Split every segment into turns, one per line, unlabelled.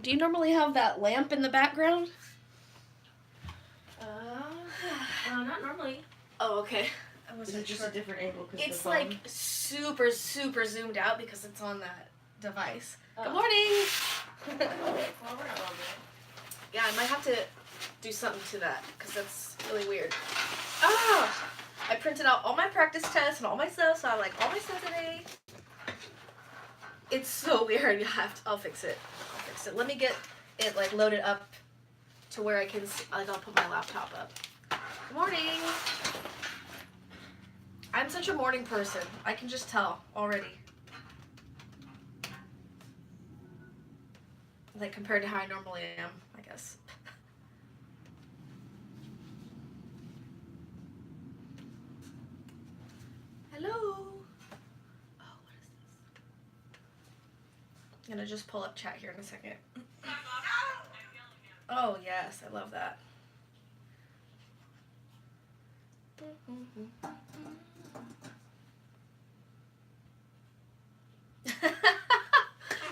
do you normally have that lamp in the background?
Uh, uh, not normally.
Oh, okay.
I
Is
wasn't
it just
sure.
a different angle? 'cause the
It's
phone-
like super, super zoomed out because it's on that device.
Oh.
Good morning. yeah, I might have to do something to that because that's really weird. Ah, I printed out all my practice tests and all my stuff, so I like all my stuff today. It's so weird. You have to. I'll fix it. I'll fix it. Let me get it like loaded up to where I can. s like I'll put my laptop up. Good morning. I'm such a morning person. I can just tell already. Like compared to how I normally am, I guess. Hello. Oh, what is this? I'm gonna just pull up chat here in a second. Oh yes, I love that.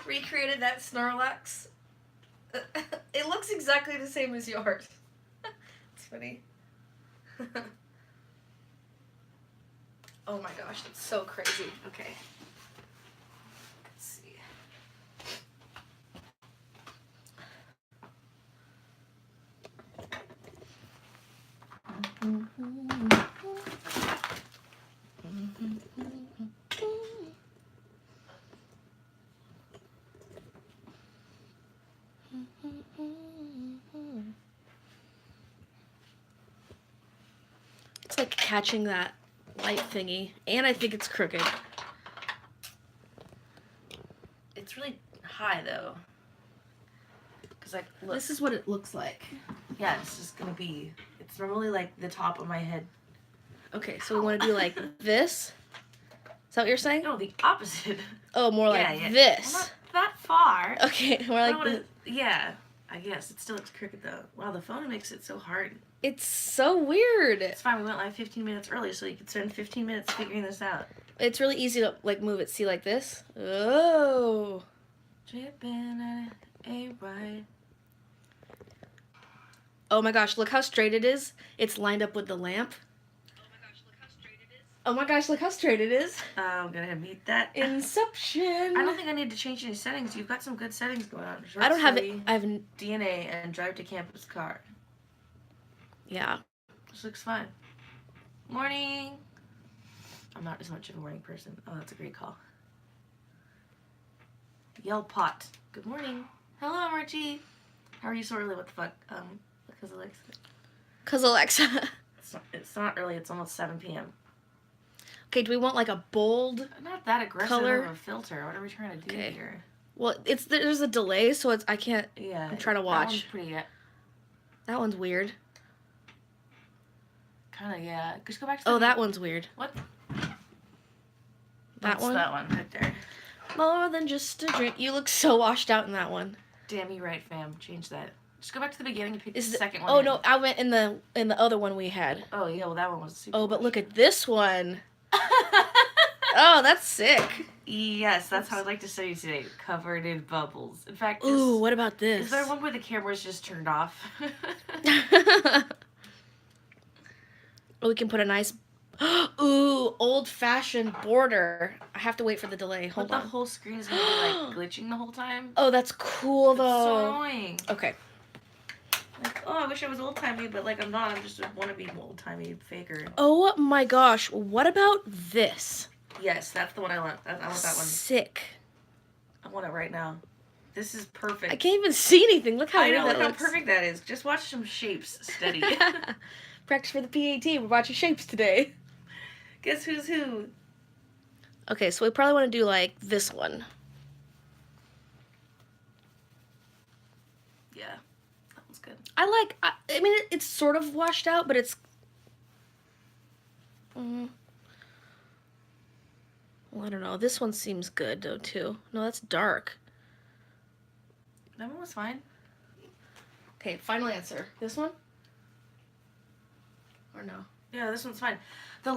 Recreated that Snorlax. it looks exactly the same as yours. it's funny. oh my gosh, that's so crazy. Okay. Let's see. It's like catching that light thingy, and I think it's crooked. It's really high though. Cause like, look.
This is what it looks like. Yeah, it's just gonna be. It's normally like the top of my head.
Okay, so we want to do like this. Is that what you're saying?
No, the opposite.
Oh, more like
yeah, yeah.
this.
Well, not that far.
Okay, more
I
like
don't wanna-
this.
yeah, I guess it still looks crooked though. Wow, the phone makes it so hard.
It's so weird.
It's fine. We went live 15 minutes early, so you could spend 15 minutes figuring this out.
It's really easy to like move it. See, like this. Oh.
Dripping on a ride.
Oh my gosh, look how straight it is. It's lined up with the lamp. Oh my gosh, look how straight it is.
Oh, I'm gonna meet that.
Inception.
I don't think I need to change any settings. You've got some good settings going on. Short
I don't have it.
story,
I have n-
DNA and drive to campus car.
yeah.
This looks fine. Morning. I'm not as much of a morning person. Oh, that's a great call. Yell pot. Good morning. Hello, Margie. How are you so early? What the fuck? Um, because Alexa.
Cause Alexa.
It's not, it's not early. It's almost 7 p.m.
okay, do we want like a bold?
Not that aggressive
Color.
of a filter. What are we trying to do
Okay.
here?
Well, it's there's a delay, so it's I can't.
Yeah.
I'm trying to
that
watch.
one's pretty. uh,
That one's weird.
Kind of. Yeah. Just go back to.
Oh,
the-
that one's weird.
What?
That
That's
one.
That one right there.
More than just a drink. You look so washed out in that one.
Damn you right, fam. Change that. Just go back to the beginning and pick
Is
the
the-
second one.
Oh
in.
no, I went in the in the other one we had.
Oh yeah, well that one was super.
Oh, but look at this one. Oh, that's sick.
yes, that's how I'd like to study today. Covered in bubbles. In fact, is-
Ooh, what about
is
this?
there one where the camera's just turned off?
oh, we can put a nice. Ooh, old fashioned border. I have to wait for the delay.
but
Hold
the
on.
whole screen is gonna be like glitching the whole time.
oh, that's cool
It's so
though.
annoying.
okay.
Like, oh, I wish I was old timey, but like I'm not. I'm just a wannabe old timey faker.
Oh my gosh, what about this?
Yes, that's the one I want. I I want that one.
Sick.
I want it right now. This is perfect.
I can't even see anything. Look how
I
weird
know
that
look how
looks.
perfect that is. Just watch some shapes study.
Practice for the PAT. We're watching shapes today.
Guess who's who?
Okay, so we probably want to do like this one.
Yeah, that one's good.
I like. I, I mean, it, it's sort of washed out, but it's. Mm. Well, I don't know. This one seems good though too. No, that's dark.
That one was fine.
Okay, final answer. This one. Or no.
Yeah, this one's fine.